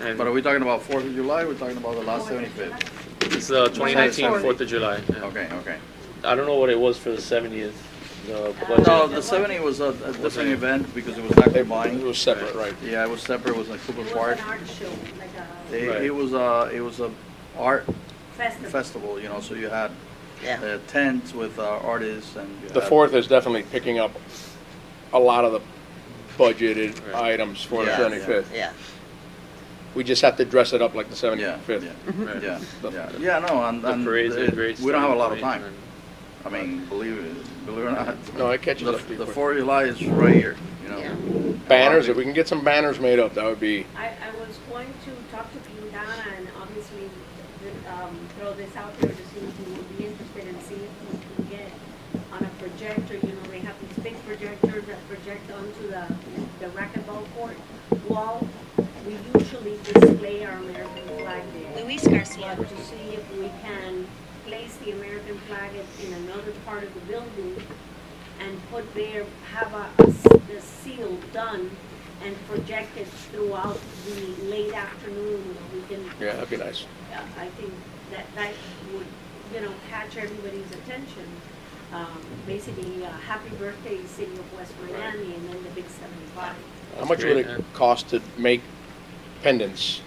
And But are we talking about Fourth of July, we're talking about the last seventy-fifth? it's the 2019 Fourth of July. yeah. Okay, okay. I don't know what it was for the 70th. The budget. No, the seventy was a, a different event because it was not It combined. was separate, right? Yeah, it was separate, it was in Cooper It was Park. an art show, like a It, Right. it was a, it was a art festival. festival, you know, so you had uh, tents with uh, artists and. you The had- fourth is definitely picking up a lot of the budgeted Right. items for the Yeah, seventy-fifth. Yeah, We just have to dress it up like the Yeah, yeah, seventy-fifth. Right. yeah, The- yeah, yeah, no, and, The and parades and it- great we don't have a lot of starting time. point I mean, believe it, believe it or not. No, it catches The, up pretty the quick. Fourth of July is right here, you know. Yeah. Banners, if we can get some banners made up, that would be, I, I was going to talk to Quintana and obviously th- um, throw this out there to see who would be interested and see if we can get on a projector, you know, they have these big projectors that project onto the, the racquetball court wall. We usually display our American flag there. Luis But Garcia. to see if we can place the American flag in- in another part of the building and put there, have a, the seal done and project it throughout the late afternoon. We can, yeah, that'd be nice. uh, I think that, that would, you know, catch everybody's attention. Um, basically, uh, happy birthday, city of West Miami, and then the big seventy-five. How much would great, it yeah. cost to make pendants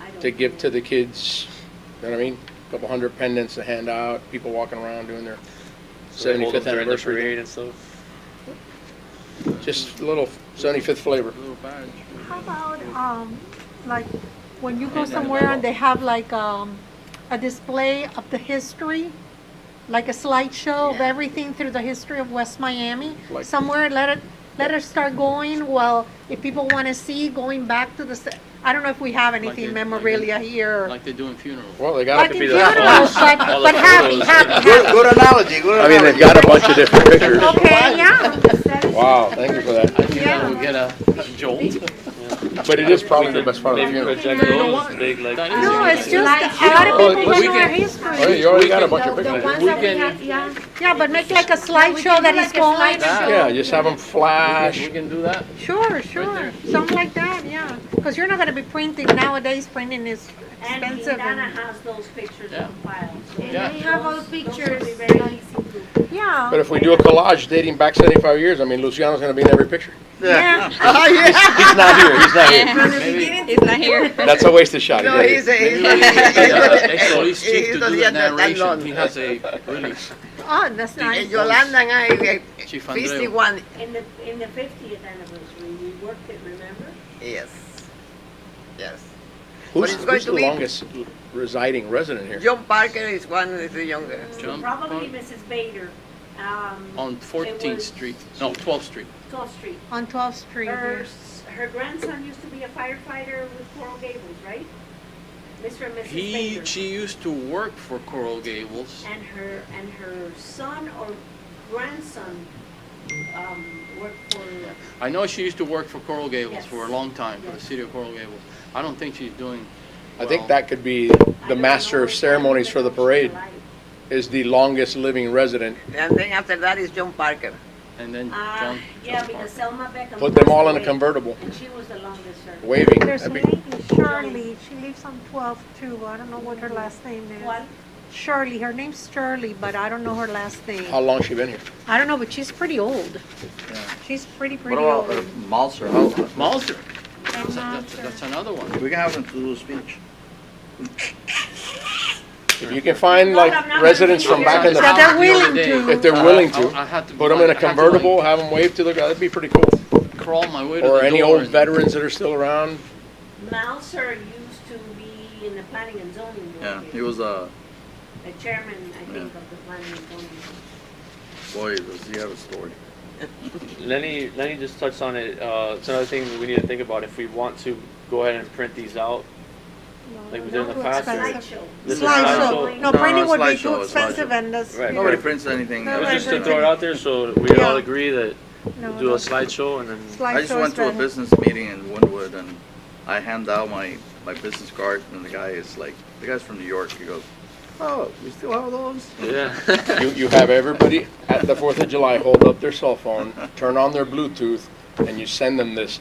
I don't to give to know. the kids? You know what I mean? Couple hundred pendants to hand out, people walking around doing their So they hold them during seventy-fifth the anniversary. parade and stuff. Just a little seventy-fifth flavor. How about, um, like, when you go somewhere and they have like, um, a display of the history? Like a slideshow of Yeah. everything through the history of West Miami? Like- Somewhere, let it, let it start going, well, if people wanna see, going back to the, se- I don't know if we have anything memorabilia here. Like they do in funerals. Well, they gotta Like could be in the funerals, but, all but the happy, photos. happy, Good, good analogy, good I mean, they've analogy. got a bunch of different pictures. okay, yeah, Wow, thank you for that. I think Yeah. that would get a jolt. But it is probably the best part of the Maybe funeral. project those big like. That is no, it's just, a lot Well, of people we don't know can- our Oh, history. you already got a bunch of The pictures. ones that we have, yeah. Yeah, but make like a slideshow do that like is a going. slideshow. Yeah, just have them flash. Ah, We can do that. Sure, sure, something like that, yeah, because you're not gonna be printing nowadays, printing is And expensive Quintana and, has those pictures on file. so And Yeah. they have all those- those would be pictures, very like, easy to- yeah. But uh, if we do a collage dating back seventy-five years, I mean, Luciano's gonna be in every picture. Yeah. Oh, He's not here, he's not here. He's not here. That's a wasted shot. no, isn't it? he's a, So he's He- he cheap to doesn't do the have that narration. long. He has a really Oh, that's nice. Yolanda and I, we are Chief Andreu. 51, In the, in the fiftieth anniversary, we worked it, remember? yes, yes. Who's, it's going who's to the be- longest residing resident here? John Parker is one of the younger. Mm. Jump Probably on- Mrs. Bader, um, on 14th Street, no, 12th Street. Gulf Street. On 12th Street, Her, yeah. s- her grandson used to be a firefighter with Coral Gables, right? Mr. and Mrs. He, Bader. she used to work for Coral Gables. And her, and her son or grandson, um, worked for, I know she used to work for Coral Gables Yes. for a long time, for the Yes. city of Coral Gables. I don't think she's doing I well. think that could be I the don't master know of if I ceremonies for the remember parade, Mm-hmm. her life. is the longest living resident. And then after that is John Parker. And then Uh, John, yeah, John because Parker. Selma Beckham. Put them passed all in a away, convertible, And she was the longest serving. waving. There's a That'd be- lady, Shirley, she lives on 12th too, I don't know what her last name What? is. Shirley, her name's Shirley, but I don't know her last How name. long she been here? I don't know, but she's pretty old. She's pretty, What pretty about old. uh, Malser, how, Malzer, I'm that's, not that's- sure. that's another one. we can have them to do a speech. If you can find No, like I'm not residents gonna from back in So the, they're willing The other day, if to, they're willing I- to, I- I had to put them in I a had to, like, convertible, have them wave to the, that'd be pretty cool. Crawl my way to the door. Or any old and- veterans that are still around. Mouser used to be in the planning and zoning Yeah, board he here, was a, the chairman, I Yeah. think, of the planning and zoning. board. boy, does he have a story. Lenny, Lenny just touched on it. Uh, it's another thing we need to think about if we want to go ahead and print these out. Like we did in the Too past. or- expensive. Slideshow. This is Slideshow, no, No, no, printing would be slideshow, too slideshow. expensive and that's. Right. you Nobody know, prints anything. It was Right, just to right, throw it right. out there so we all Yeah. agree that no, do no. a slideshow and then I just Slideshow went is to a better. business meeting in Wynwood and I hand out my, my business card and the guy is like, the guy's from New York, he goes, oh, we still have those? yeah. You, you have everybody at the Fourth of July hold up their cell phone, turn on their Bluetooth, and you send them this